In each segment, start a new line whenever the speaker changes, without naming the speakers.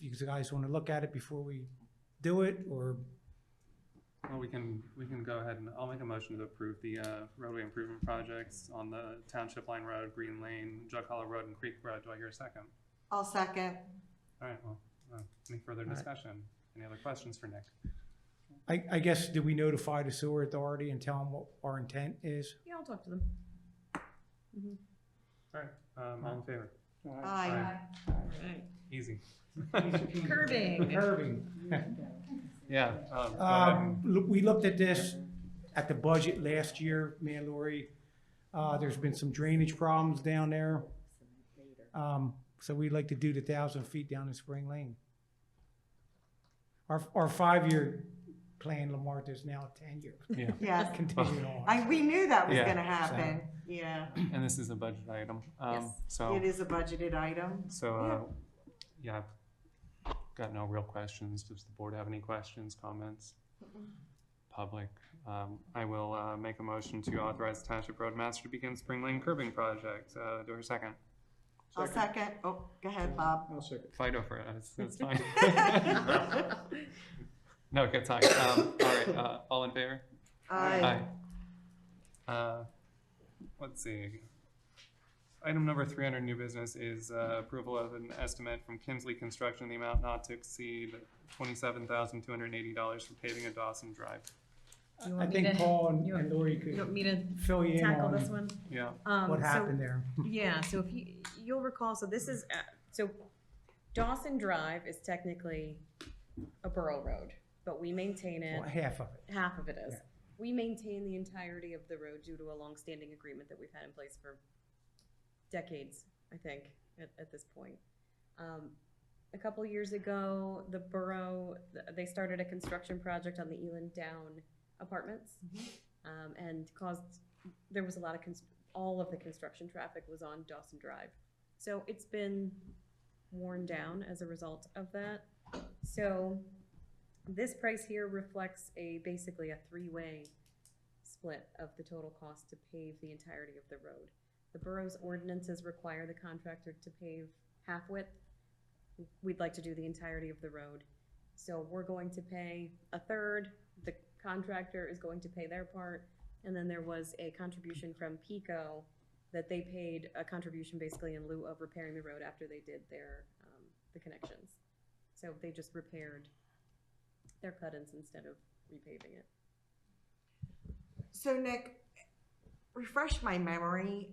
you guys want to look at it before we do it, or,
Well, we can, we can go ahead and, I'll make a motion to approve the uh, roadway improvement projects on the Township Line Road, Green Lane, Jug Hollow Road, and Creek Road. Do I hear a second?
I'll second.
All right, well, uh, any further
All right.
discussion? Any other questions for Nick?
I, I guess, do we notify the sewer authority and tell them what our intent is?
Yeah, I'll talk to them.
All right, um, all in favor?
Aye.
Alright.
Easy.
Curbing.
Curbing.
Yeah. um, go ahead and-
Um, look, we looked at this at the budget last year, me and Lori. Uh, there's been some drainage problems down there. Um, so we'd like to do the thousand feet down in Spring Lane. Our, our five-year plan, Lamar, is now a ten-year,
Yes,
continuing on.
I, we knew that was
Yeah.
gonna happen, yeah.
And this is a budget item. Um,
Yes.
So,
It is a budgeted item.
so, uh, yeah, I've got no real questions. Does the board have any questions, comments? Public. Um, I will uh, make a motion to authorize the Township Roadmaster to begin Spring Lane curbing project. Uh, Do I hear a second?
I'll second, oh, go ahead, Bob.
I'll second.
Fight over it. That's, that's fine. No, good talk. Um, All right, uh, all in favor?
Aye.
Aye. Uh, Let's see. Item number three under new business is uh, approval of an estimate from Kinsley Construction in the amount not to exceed twenty-seven thousand two hundred and eighty dollars for paving of Dawson Drive.
You
I
want me
think
to-
Paul and-
you
and
want-
Lori
You want
could
me to
fill you in
tackle this
on
one?
Yeah,
Um,
what
so-
happened there.
Yeah, so if you, you'll recall, so this is, uh, so Dawson Drive is technically a borough road, but we maintain it.
Well, Half of it.
Half of it is.
Yeah.
We maintain the entirety of the road due to a longstanding agreement that we've had in place for decades, I think, at, at this point. Um, a couple years ago, the borough, th- they started a construction project on the Eland Down Apartments. Um, and caused, there was a lot of, cons- all of the construction traffic was on Dawson Drive. So it's been worn down as a result of that. So this price here reflects a, basically a three-way split of the total cost to pave the entirety of the road. The borough's ordinances require the contractor to pave half width. We'd like to do the entirety of the road. So we're going to pay a third, the contractor is going to pay their part, and then there was a contribution from Pico that they paid a contribution basically in lieu of repairing the road after they did their, um, the connections. So they just repaired their cut-ins instead of repaving it.
So Nick, refresh my memory,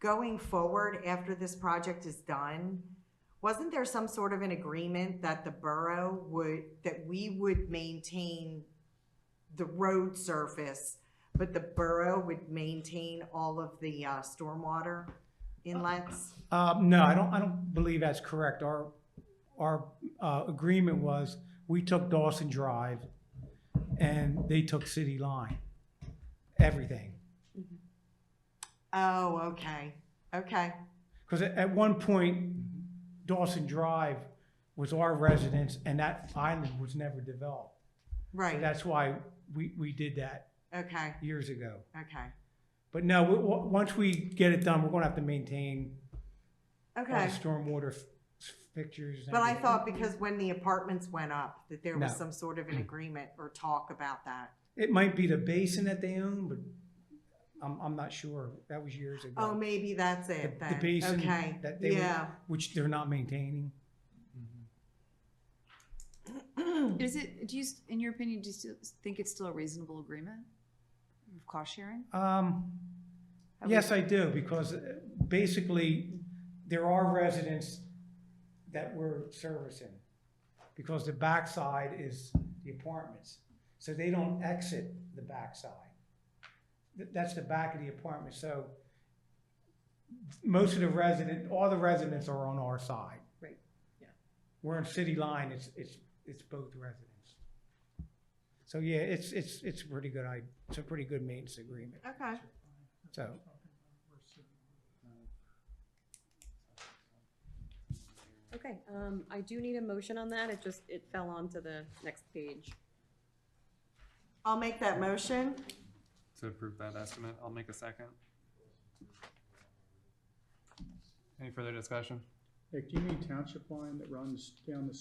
going forward after this project is done, wasn't there some sort of an agreement that the borough would, that we would maintain the road surface, but the borough would maintain all of the uh, stormwater inlets?
Um, no, I don't, I don't believe that's correct. Our, our, uh, agreement was, we took Dawson Drive and they took City Line, everything.
Oh, okay, okay,
Cause at, at one point Dawson Drive was our residence and that island was never developed.
right,
That's why we, we did that
okay,
years ago.
okay,
But no, we, w- once we get it done, we're gonna have to maintain all the
okay.
stormwater f- fixtures. and
But I
everything.
thought because when the apartments went up, that there was
No.
some sort of an agreement or talk about that.
It might be the basin that they own, but I'm, I'm not sure. That was years ago.
Oh, maybe that's
The-
it
the
then.
basin
Okay,
that they were-
yeah.
Which they're not maintaining.
Is it, do you, s- in your opinion, do you still think it's still a reasonable agreement of cost sharing?
Um,
Have we-
yes, I do, because uh, basically, there are residents that we're servicing. Because the backside is the apartments, so they don't exit the backside. Th- That's the back of the apartment, so most of the resident, all the residents are on our side.
Right, yeah.
We're in city line, it's, it's, it's both residents. So, yeah, it's, it's, it's a pretty good, I, it's a pretty good maintenance agreement,
Okay,
so.
Okay, um, I do need a motion on that, it just, it fell onto the next page.
I'll make that motion.
to approve that estimate. I'll make a second. Any further discussion?
Nick, do you mean township line that runs down the